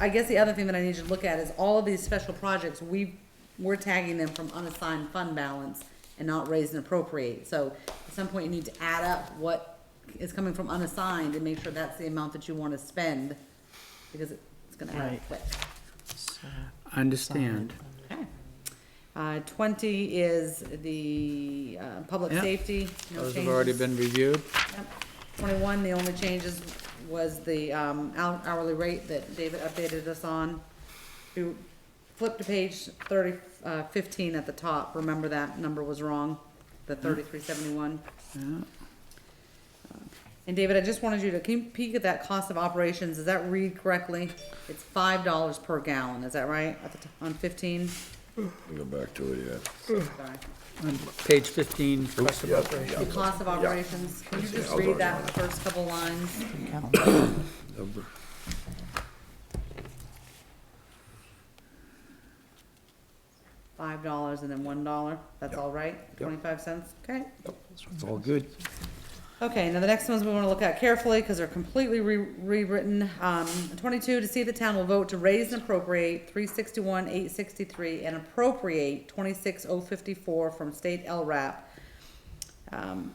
I guess the other thing that I need you to look at is all of these special projects, we, we're tagging them from unassigned fund balance and not raise and appropriate. So at some point, you need to add up what is coming from unassigned and make sure that's the amount that you wanna spend, because it's gonna add Right. quick. I understand. Okay. Uh, twenty is the, uh, public Yeah. safety, no Those have changes. already been reviewed. Yep. Twenty-one, the only changes was the um, hou- hourly rate that David updated us on. You flip to page thirty, uh, fifteen at the top, remember that number was wrong, the thirty-three seventy-one. Yeah. And David, I just wanted you to, can you peek at that cost of operations, does that read correctly? It's five dollars per gallon, is that right, at the, t- on fifteen? Go back to it, yeah. Sorry. On page fifteen, question Yeah, about the- yeah. The cost of operations, can you just I'll read vote that on it. first couple lines? Number- Five dollars and then one dollar, that's all right, twenty-five cents, okay? It's all good. Okay, now the next ones we wanna look at carefully, cause they're completely re- rewritten, um, twenty-two, to see if the town will vote to raise and appropriate three sixty-one, eight sixty-three, and appropriate twenty-six oh fifty-four from state LRAP. Um,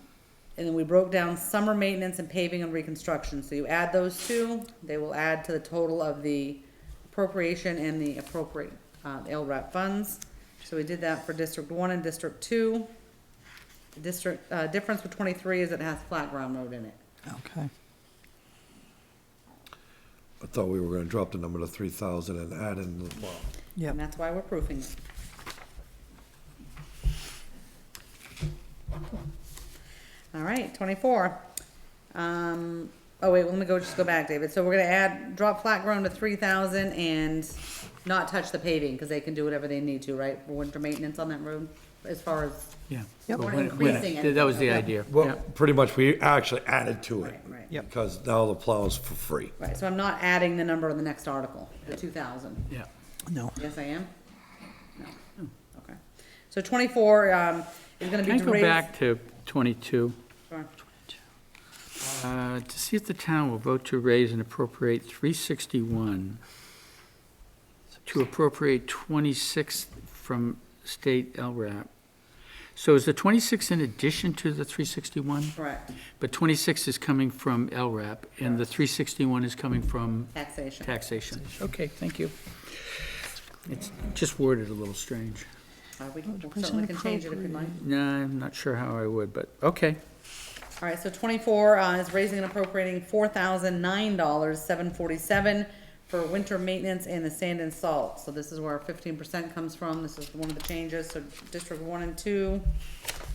and then we broke down summer maintenance and paving and reconstruction, so you add those two, they will add to the total of the appropriation and the appropriate, uh, LRAP funds. So we did that for District One and District Two. The district, uh, difference with twenty-three is it has flat ground road in it. Okay. I thought we were gonna drop the number to three thousand and add in the plow. Yep. And that's why we're proofing it. All right, twenty-four. Um, oh wait, let me go, just go back, David. So we're gonna add, drop flat ground to three thousand and not touch the paving, cause they can do whatever they need to, right? For winter maintenance on that road, as far as, yeah. Well, Yep. We're when- increasing when- it. That was the idea, yeah. Well, pretty much, we actually added to it. Right, right. Yep. Because now the plow's for free. right, so I'm not adding the number in the next article, the two thousand. Yeah. No. Yes, I am? No. Okay. So twenty-four, um, is gonna be Can I to go raise. back to twenty-two? Sure. Uh, To see if the town will vote to raise and appropriate 361, to appropriate 26 from state LRAP. So is the 26 in addition to the 361? Correct, But 26 is coming from LRAP, and the 361 is coming from taxation. taxation. Okay, thank you. It's just worded a little strange. Uh, we can- we certainly can change it if we'd like. No, I'm not sure how I would, but, okay. All right, so twenty-four, uh, is raising and appropriating four thousand nine dollars, seven forty-seven for winter maintenance and the sand and salt. So this is where fifteen percent comes from. This is one of the changes, so District One and Two.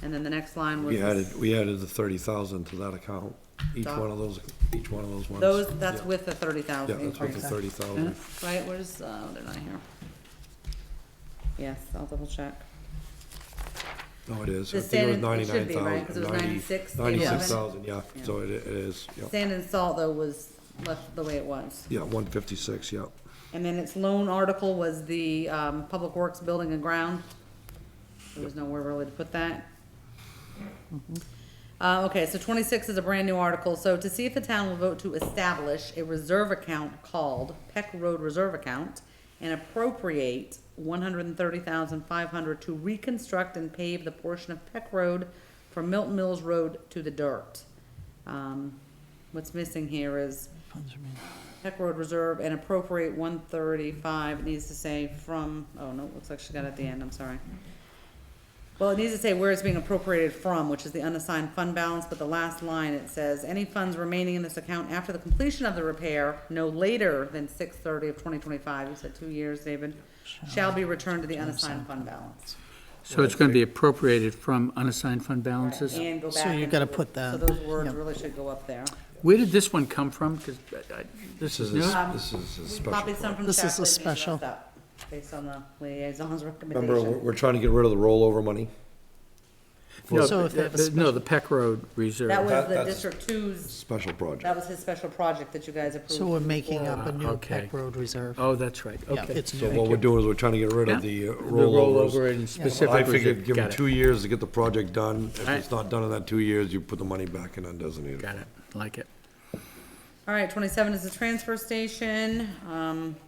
And then the next line was. We added, we added the thirty thousand to that account, each Done. one of those, each one of those ones. Those, that's Yeah. with the thirty Yeah, thousand that's with the increase, thirty thousand. right? Where's, uh, they're not here. Yes, I'll double check. No, it is. Uh-huh. The I think it was standard- it should ninety-nine be, thousand. right? 'Cause it was 96, Ninety-six thousand, yeah, Yeah. so it, it is, yeah. Sand and salt though was left the way it was. Yeah, one fifty-six, yeah. And then its lone article was the, um, Public Works Building and Ground. There was nowhere really to put that. Uh, okay, so twenty-six is a brand new article, so to see if the town will vote to establish a reserve account called Peck Road Reserve Account and appropriate one hundred and thirty thousand five hundred to reconstruct and pave the portion of Peck Road from Milton Mills Road to the dirt. Um, what's missing here is Peck Road Reserve and appropriate one thirty-five, it needs to say from, oh no, it looks like she got it at the end, I'm sorry. Well, it needs to say where it's being appropriated from, which is the unassigned fund balance, but the last line, it says, any funds remaining in this account after the completion of the repair, no later than six thirty of twenty twenty-five, you said two years, David, shall be returned to the unassigned fund balance. So it's going to be appropriated from unassigned fund balances? And go So back you into gotta the- put that, So those words yeah. really should go up there. Where did this one come from? 'Cause uh, I- I- this This is is, a- new. Um, this is a We copied some special. project. from This staff, is a they just left special. that Based on the liaison's recommendation. Remember, we're, we're trying to get rid of the rollover money? No, So if they the- have a the- no, special- the Peck Road Reserve. That was That- the that's- District Two's, Special that project. was his special project that you guys approved. So we're making up a new Okay. Peck Road Reserve. Oh, that's right, Yeah, okay. it's So new. what we're doing is we're trying to get rid of Yeah. the uh, The rollover rollovers. and I specific figured reserve, give them got two it, years to get the project done. If Alright. it's not done in that two years, you put the money back in undesignated. got it, like it. All right, twenty-seven is the transfer station, um,